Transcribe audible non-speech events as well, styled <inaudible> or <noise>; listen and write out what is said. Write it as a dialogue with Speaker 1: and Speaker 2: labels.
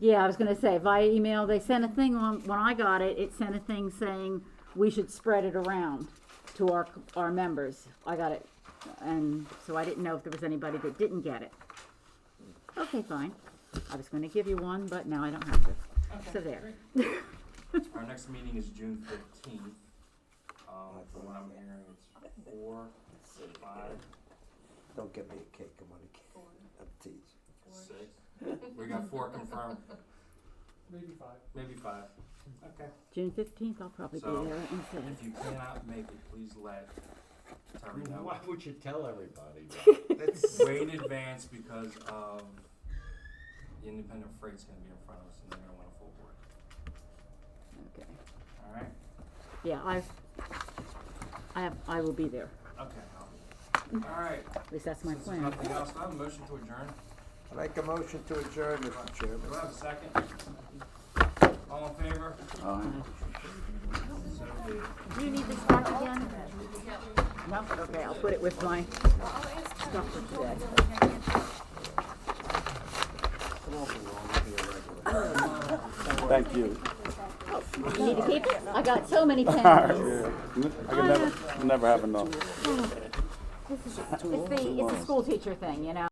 Speaker 1: Yeah, I was gonna say via email, they sent a thing on, when I got it, it sent a thing saying we should spread it around to our, our members. I got it, and so I didn't know if there was anybody that didn't get it. Okay, fine. I was gonna give you one, but now I don't have to. So
Speaker 2: Okay,
Speaker 1: there.
Speaker 2: great.
Speaker 3: Our next meeting is June fifteenth. Um, from what I'm hearing, it's four, five,
Speaker 4: Don't get me a cake, I'm on a cake, I'm teasing.
Speaker 3: six. We got four confirmed,
Speaker 5: Maybe five.
Speaker 3: maybe five.
Speaker 5: Okay.
Speaker 1: June fifteenth, I'll probably be
Speaker 3: So,
Speaker 1: there instead.
Speaker 3: If you cannot make it, please let Terry know
Speaker 6: Why would you tell everybody?
Speaker 4: That's,
Speaker 3: way in advance because of the independent freight's gonna be in front of us and they're gonna want a full board,
Speaker 1: Okay.
Speaker 3: alright?
Speaker 1: Yeah, I, I have, I will be there.
Speaker 3: Okay, I'll- alright,
Speaker 1: At least that's my
Speaker 3: since there's
Speaker 1: plan.
Speaker 3: nothing else, do I have a motion to adjourn.
Speaker 4: I make a motion to adjourn, Mr. Chairman.
Speaker 3: Do I have a second? All in favor? So be it.
Speaker 1: Do you need this back again? No, okay, I'll put it with my stuff for today.
Speaker 7: Thank you.
Speaker 1: You need to keep it? I got so
Speaker 7: <laughs>
Speaker 1: many pens.
Speaker 7: I can never, never have enough.
Speaker 1: It's the, it's the school teacher thing, you know?